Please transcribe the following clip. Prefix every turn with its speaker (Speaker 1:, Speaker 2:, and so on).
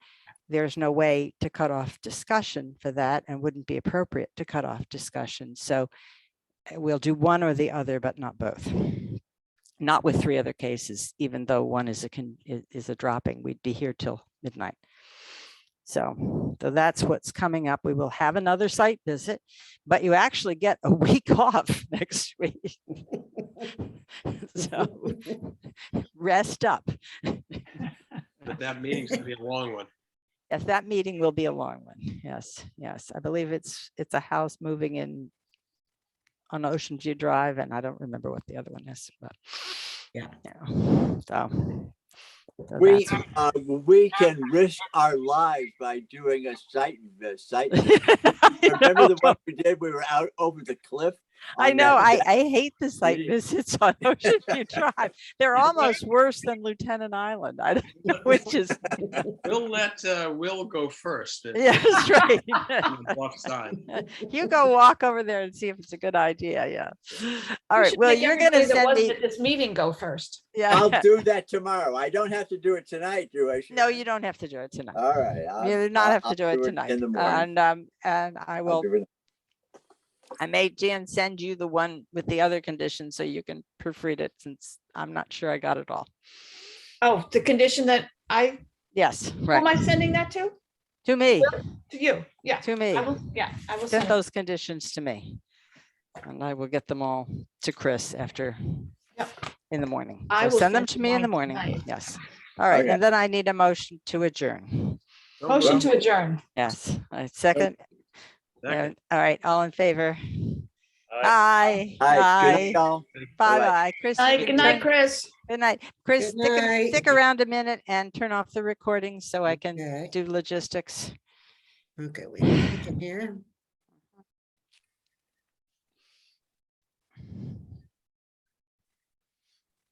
Speaker 1: there's no way to cut off discussion for that and wouldn't be appropriate to cut off discussion. So uh, we'll do one or the other, but not both. Not with three other cases, even though one is a con, i- is a dropping. We'd be here till midnight. So, so that's what's coming up. We will have another site visit, but you actually get a week off next week. So rest up.
Speaker 2: But that meeting's gonna be a long one.
Speaker 1: Yes, that meeting will be a long one. Yes, yes. I believe it's, it's a house moving in on Ocean View Drive, and I don't remember what the other one is, but.
Speaker 3: Yeah.
Speaker 1: So. so
Speaker 4: We,
Speaker 1: that's-
Speaker 4: uh, we can risk our lives by doing a site, a site. visit.
Speaker 1: I
Speaker 4: Remember
Speaker 1: know.
Speaker 4: the one we did? We were out over the cliff.
Speaker 1: I
Speaker 4: on
Speaker 1: know, I,
Speaker 4: that-
Speaker 1: I hate the site
Speaker 4: Yeah.
Speaker 1: visits on Ocean View Drive. They're almost worse than Lieutenant Island, I don't know, which is,
Speaker 2: We'll let uh, Will go first. and-
Speaker 1: yeah, that's right.
Speaker 2: on the Buff side.
Speaker 1: You go walk over there and see if it's a good idea, yeah. All
Speaker 3: We
Speaker 1: right,
Speaker 3: should
Speaker 1: well,
Speaker 3: make
Speaker 1: you're gonna
Speaker 3: everybody that
Speaker 1: send
Speaker 3: wasn't
Speaker 1: me,
Speaker 3: at This meeting go first.
Speaker 1: yeah,
Speaker 4: I'll do that tomorrow. I don't have to do it tonight, do I?
Speaker 1: no,
Speaker 4: Sharon?
Speaker 1: you don't have to do it tonight.
Speaker 4: All right. I'll-
Speaker 1: You do not
Speaker 4: Uh, I'll-
Speaker 1: have
Speaker 4: I'll
Speaker 1: to do it tonight.
Speaker 4: In the morning.
Speaker 1: And, um, and I
Speaker 4: I'll
Speaker 1: will,
Speaker 4: do it.
Speaker 1: I may, Jan, send you the one with the other conditions so you can proofread it since I'm not sure I got it all.
Speaker 3: Oh, the condition that I,
Speaker 1: Yes,
Speaker 3: who am
Speaker 1: right.
Speaker 3: I sending that to?
Speaker 1: To me,
Speaker 3: To you, yeah.
Speaker 1: to me.
Speaker 3: I will, yeah, I will
Speaker 1: Send
Speaker 3: send, it.
Speaker 1: those conditions to me. And I will get them all to Chris after,
Speaker 3: Yep.
Speaker 1: in the morning.
Speaker 3: I
Speaker 1: So
Speaker 3: will
Speaker 1: Send them
Speaker 3: send
Speaker 1: to
Speaker 3: you
Speaker 1: me in
Speaker 3: mine
Speaker 1: the morning.
Speaker 3: tonight.
Speaker 1: Yes. All right.
Speaker 4: Okay.
Speaker 1: And then I need a motion to adjourn.
Speaker 3: motion to adjourn.
Speaker 1: Yes. I Second.
Speaker 2: Second.
Speaker 1: uh, All right. All in favor?
Speaker 2: Aye.
Speaker 1: Aye.
Speaker 4: All right, good
Speaker 1: Aye.
Speaker 4: night, y'all.
Speaker 1: Bye
Speaker 4: Bye-bye.
Speaker 1: bye. Chris. you
Speaker 3: Aye,
Speaker 1: can
Speaker 3: Good
Speaker 1: turn-
Speaker 3: night, Chris.
Speaker 1: Good night. Chris,
Speaker 5: Good
Speaker 1: stick, a- stick
Speaker 5: night.
Speaker 1: around a minute and turn off the recording so I can
Speaker 5: Okay,
Speaker 1: do logistics.
Speaker 5: okay, wait, a minute, I can hear.